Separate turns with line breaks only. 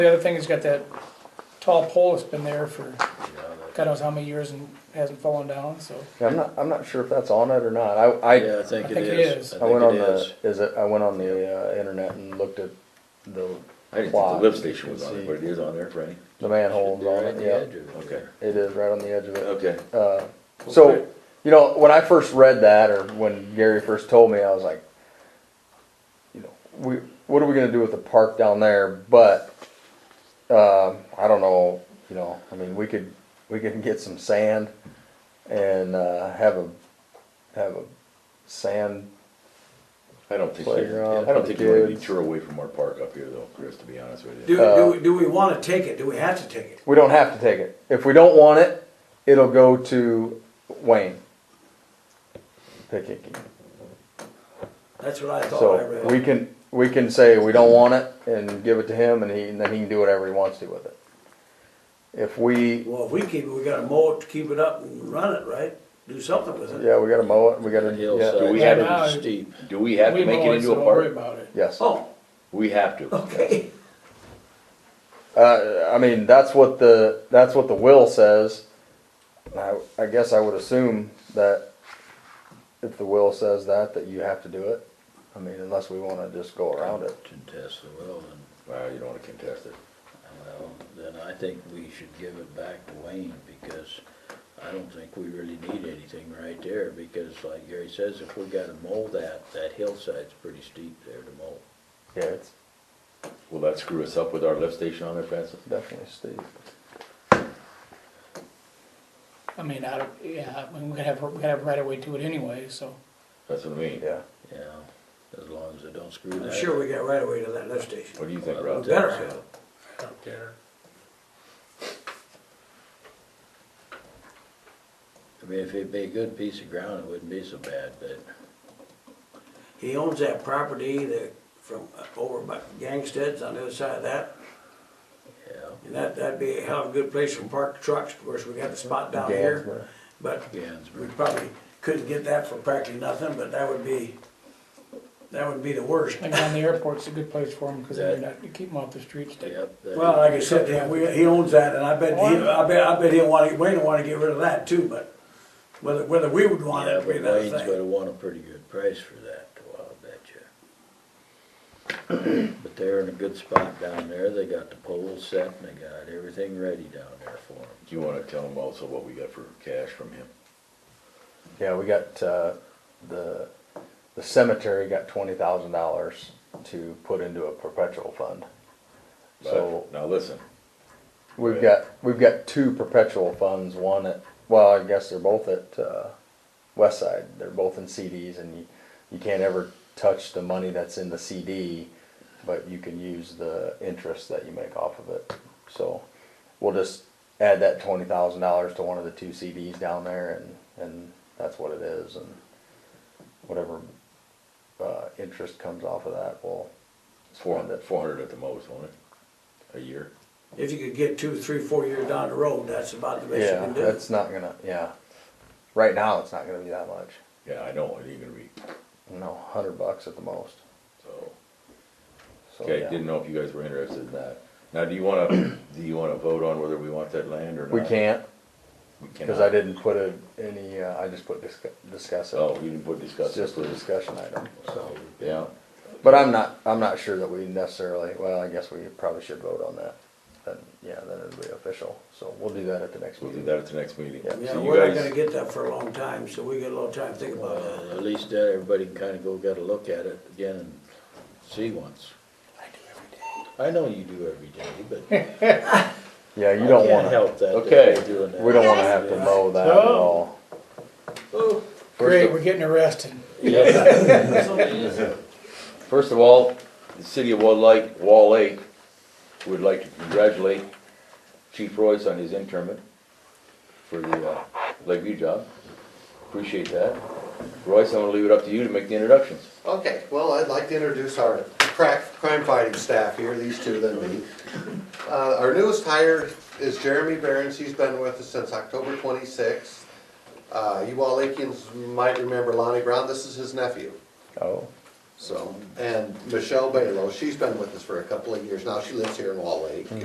The other thing is got that tall pole that's been there for
Yeah, that-
God knows how many years and hasn't fallen down, so.
Yeah, I'm not, I'm not sure if that's on it or not. I, I,
Yeah, I think
I
it
think it is.
is. I
I went
think
on
it is.
the, is it, I went on the, uh, internet and looked at the,
I didn't think the
Plot,
lift
you
station
can
was on
see.
it, but it is on there, right?
the manholes
Should be
on
right
it,
at the edge
yeah.
of it
Okay.
there.
It is right on the edge of it.
Okay.
Uh, so, you know, when I first read that or when Gary first told me, I was like, you know, we, what are we gonna do with the park down there? But, uh, I don't know, you know, I mean, we could, we could get some sand and, uh, have a, have a sand
I don't think,
Playground
they're- I don't
for
think you're gonna
kids.
detour away from our park up here though, Chris, to be honest with
Do,
you.
do, we- do we wanna take it? Do we have to take it?
We don't have to take it. If we don't want it, it'll go to Wayne. Pickhicky.
That's what I thought I
So we
read.
can, we can say we don't want it and give it to him and he, and then he can do whatever he wants to with it. If we,
Well, if we keep it, we gotta mow it to keep it up and run it, right? Do something with it.
yeah, we gotta mow it, we
The
gotta,
hillside.
yeah,
Do we
Yeah,
have
now-
it
Steep.
Do we have
We
to make
mow
it
so
into a
Don't worry
park?
about it.
yes.
Oh,
We have to.
okay.
Uh, I mean, that's what the, that's what the will says. I, I guess I would assume that if the will says that, that you have to do it. I mean, unless we wanna just go around it.
Contest the will, and,
Well, you don't wanna contest it.
well, then I think we should give it back to Wayne, because I don't think we really need anything right there, because like Gary says, if we gotta mow that, that hillside's pretty steep there to mow.
Yeah, it's
Will that screw us up with our lift station on there, Francis?
Definitely Steve.
I mean, I, don't- yeah, I mean, we could have, we could have right away to it anyway, so.
That's what I mean.
Yeah.
Yeah, as long as it don't screw that.
I'm
up.
sure we got right away to that lift station.
What do you think,
We
Rob?
better have it.
Up there.
I mean, if it'd be a good piece of ground, it wouldn't be so bad, but
He owns that property that, from uh, over by Gangstead's on the other side of that.
yeah,
And that, that'd be a hell of a good place for parked trucks. Of course, we got the spot down here. But we
Gansmer.
probably couldn't get that for practically nothing, but that would be, that would be the worst.
Like on the airport's a good place for them, cause they're
That-
not, you keep them off the streets.
Yep. that
Well,
is-
like I said, yeah, we, he owns that, and I bet, he, I bet, I bet he'll wanna, Wayne will wanna get rid of that too, but whether, whether we would want
Yeah,
it, would be
but
another
Wayne's
thing.
gonna want a pretty good price for that, though, I'll bet you. But they're in a good spot down there, they got the poles set, and they got everything ready down there for them.
Do you wanna tell him also what we got for cash from him?
Yeah, we got, uh, the, the cemetery got twenty thousand dollars to put into a perpetual fund. So
But, now listen,
we've got, we've got two perpetual funds, one at, well, I guess they're both at, uh, West Side. They're both in CDs and you, you can't ever touch the money that's in the CD, but you can use the interest that you make off of it. So we'll just add that twenty thousand dollars to one of the two CDs down there and, and that's what it is and whatever, uh, interest comes off of that, we'll.
four hundred, four hundred at the most, won't it? A year?
If you could get two, three, four years down the road, that's about the best you
Yeah,
can do.
that's not gonna, yeah. Right now, it's not gonna be that much.
Yeah, I know, it ain't gonna be,
No, hundred bucks at the most.
so.
So,
Okay,
Oh, yeah.
didn't know if you guys were interested in that. Now, do you wanna, do you wanna vote on whether we want that land or not?
We can't,
We
cause
cannot.
I didn't put a, any, uh, I just put discuss, discuss
Oh,
it.
you didn't put
It's
discuss.
just a discussion item, so.
Yeah,
But I'm not, I'm not sure that we necessarily, well, I guess we probably should vote on that. Then, yeah, then it'll be official, so we'll do that at the next
we'll do
meeting.
that at the next meeting.
Yeah.
Yeah,
So you
we're not
guys-
gonna get that for a long time, so we got a little time to think about that.
Uh, At least that, everybody can kinda go get a look at it again and see once. I do every day. I know you do every day, but
Yeah,
you
you don't
can't
wanna,
help that. that
Okay.
we're doing that.
we don't wanna have to mow that at
Oh.
all.
Great, we're getting arrested.
First of all, the city of Wall Lake, Wall Lake would like to congratulate Chief Royce on his internment for the uh, Lakeview job. Appreciate that. Royce, I'm gonna leave it up to you to make the introductions.
Okay, well, I'd like to introduce our crack, crime-fighting staff here, these two than me. Uh, our newest hire is Jeremy Behrens, he's been with us since October twenty-sixth. Uh, you all Lakeans might remember Lonnie Brown, this is his nephew.
Oh,
So, and Michelle Balo, she's been with us for a couple of years now. She lives here in Wall Lake.